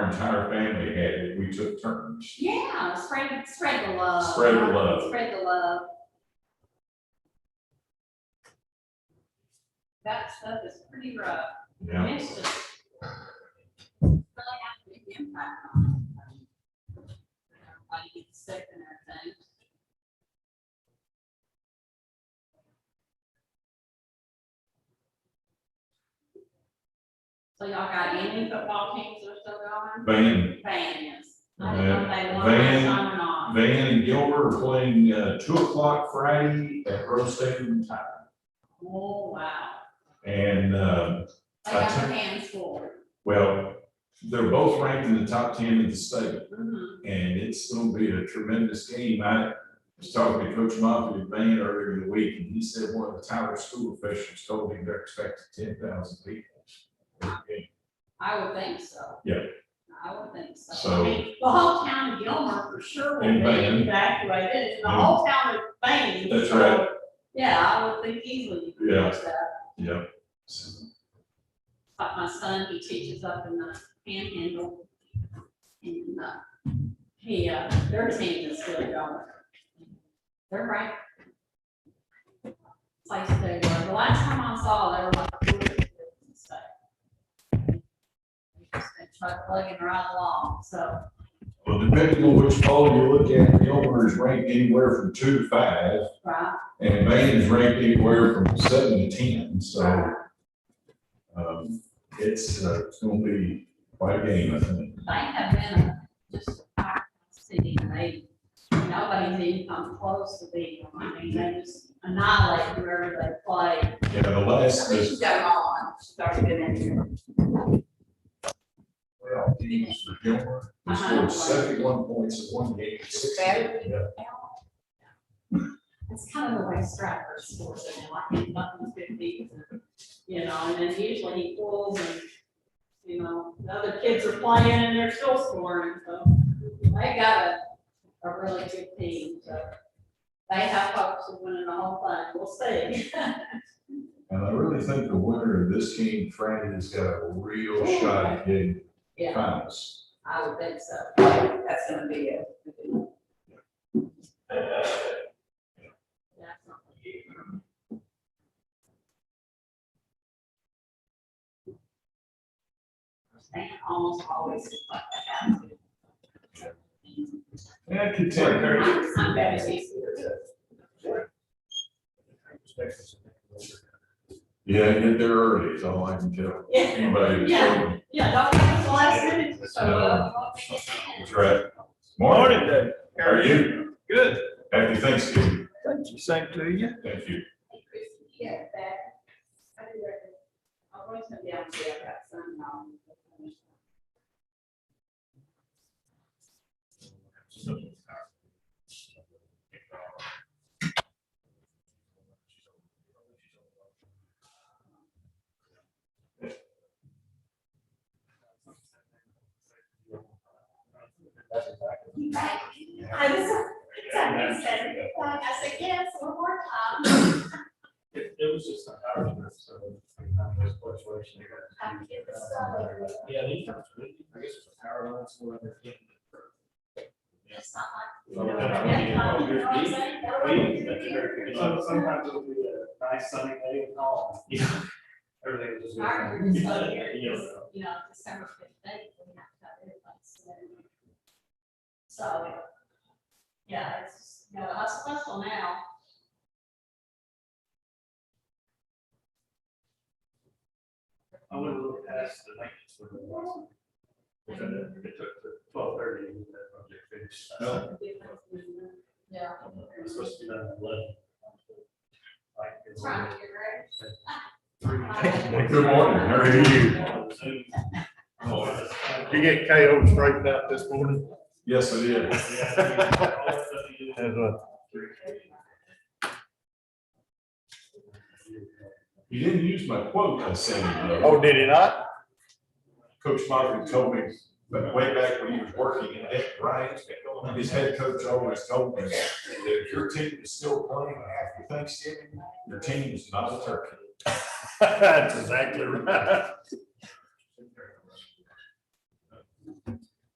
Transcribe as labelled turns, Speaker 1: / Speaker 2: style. Speaker 1: entire family had it, we took turns.
Speaker 2: Yeah, spread, spread the love.
Speaker 1: Spread the love.
Speaker 2: Spread the love. That stuff is pretty rough. and
Speaker 1: Yeah,
Speaker 2: It's just. Really have a big impact on. Everybody gets sick and everything. So y'all got any football teams that are still going?
Speaker 1: Van,
Speaker 2: Van is. I don't know if they won
Speaker 1: Van-
Speaker 2: this time or not.
Speaker 1: Van and Gilbert are playing, uh, two o'clock Friday at Rose Stadium Tire.
Speaker 2: Oh, wow.
Speaker 1: And, uh,
Speaker 2: They got
Speaker 1: That's
Speaker 2: their
Speaker 1: it.
Speaker 2: hands full.
Speaker 1: well, they're both ranked in the top ten in the state.
Speaker 2: Mhm.
Speaker 1: and it's gonna be a tremendous game. I was talking to Coach Moffitt in Van earlier in the week, and he said one of the Tyler school officials told him they're expecting ten thousand people. Okay,
Speaker 2: I would think so.
Speaker 1: Yeah.
Speaker 2: I would think so.
Speaker 1: So-
Speaker 2: I mean, The whole town of Gilmer for sure will
Speaker 1: And
Speaker 2: be
Speaker 1: Van.
Speaker 2: evacuated, and the whole town of Bain.
Speaker 1: That's right.
Speaker 2: Yeah, I would think easily you could
Speaker 1: Yeah.
Speaker 2: catch that.
Speaker 1: Yeah. So,
Speaker 2: Like my son, he teaches up in the panhandle. And, uh, he, uh, their team is still going. They're right. Place they were. The last time I saw, they were like. four and stuff. They just been Truck plugging right along, so.
Speaker 1: Well, depending on which poll you look at, Gilmer is ranked anywhere from two to five,
Speaker 2: Right,
Speaker 1: and Van is ranked anywhere from seven to ten, so,
Speaker 2: right.
Speaker 1: um, it's, uh, it's gonna be quite a game, I think.
Speaker 2: They have been a- just a city, and they, nobody's even come close to being, them. I mean, they just annihilate whoever they play.
Speaker 1: Yeah, the last,
Speaker 2: We should
Speaker 1: the-
Speaker 2: go on, started in here.
Speaker 1: well, teams for Gilmer, they
Speaker 2: Uh-huh.
Speaker 1: scored seventy-one points in one game.
Speaker 2: Saturday?
Speaker 1: Yeah.
Speaker 2: It's kind of the way Stratford scores it now, I think Buckland's fifty, you know, and then usually he pulls and, you know, the other kids are playing and they're still scoring, so they got a, a really good team, so they have hopes of winning the whole thing, we'll see.
Speaker 1: And I really think the winner of this game, Franny, has got a real
Speaker 2: Yeah.
Speaker 1: shot at getting
Speaker 2: Yeah,
Speaker 1: finals.
Speaker 2: I would think so, that's gonna be it. That's not good. They almost always look like that.
Speaker 1: Yeah, I could take her.
Speaker 2: I'm- I'm better than you.
Speaker 1: Yeah, get there early, is all I can tell.
Speaker 2: Yeah,
Speaker 1: Anybody.
Speaker 2: Yeah. yeah, don't wait till the last minute to show
Speaker 1: No.
Speaker 2: up.
Speaker 1: That's right.
Speaker 3: Morning, Dave.
Speaker 1: How are you?
Speaker 3: Good.
Speaker 1: Happy Thanksgiving.
Speaker 3: Thank you. Same to you.
Speaker 1: Thank you.
Speaker 2: Yeah, that. I do that. I'm going to be out there, that's unknown. I was, I said, I said, yes, one more time.
Speaker 4: It, it was just an hour, so. I mean, not much fluctuation there.
Speaker 2: I'm getting started.
Speaker 4: Yeah, these times, I guess it's an hour, that's what I'm getting.
Speaker 2: It's not
Speaker 4: So,
Speaker 2: like.
Speaker 4: then I would be
Speaker 2: Yeah, um, you
Speaker 4: all
Speaker 2: know what I'm
Speaker 4: good.
Speaker 2: saying? That would be
Speaker 4: Maybe,
Speaker 2: good
Speaker 4: that's a very
Speaker 2: here.
Speaker 4: good- so- Sometimes it'll be a nice sunny day and all. Yeah. Everything will just. be
Speaker 2: Our
Speaker 4: fine.
Speaker 2: group is so here,
Speaker 4: Yeah.
Speaker 2: because, you know, December fifteenth, we have to have it, like, so. So, yeah, it's, just, you know, hustle, hustle now.
Speaker 4: I went a little past the maintenance window. It took- it took twelve thirty to get that project finished.
Speaker 1: No.
Speaker 2: Yeah.
Speaker 4: It was supposed to be done at eleven. Like. it's-
Speaker 2: Trying to get ready.
Speaker 4: Three.
Speaker 2: Well,
Speaker 1: good morning. How are
Speaker 4: you?
Speaker 5: You get KO straightened out this morning?
Speaker 1: Yes, I did.
Speaker 5: As a-
Speaker 1: You didn't use my quote I sent you. though.
Speaker 5: Oh, did he not?
Speaker 1: Coach Moffitt told me, but way back when he was working in that, Ryan, his head coach always told me that if your team is still playing after Thanksgiving, your team is not a turkey.
Speaker 5: That's exactly right.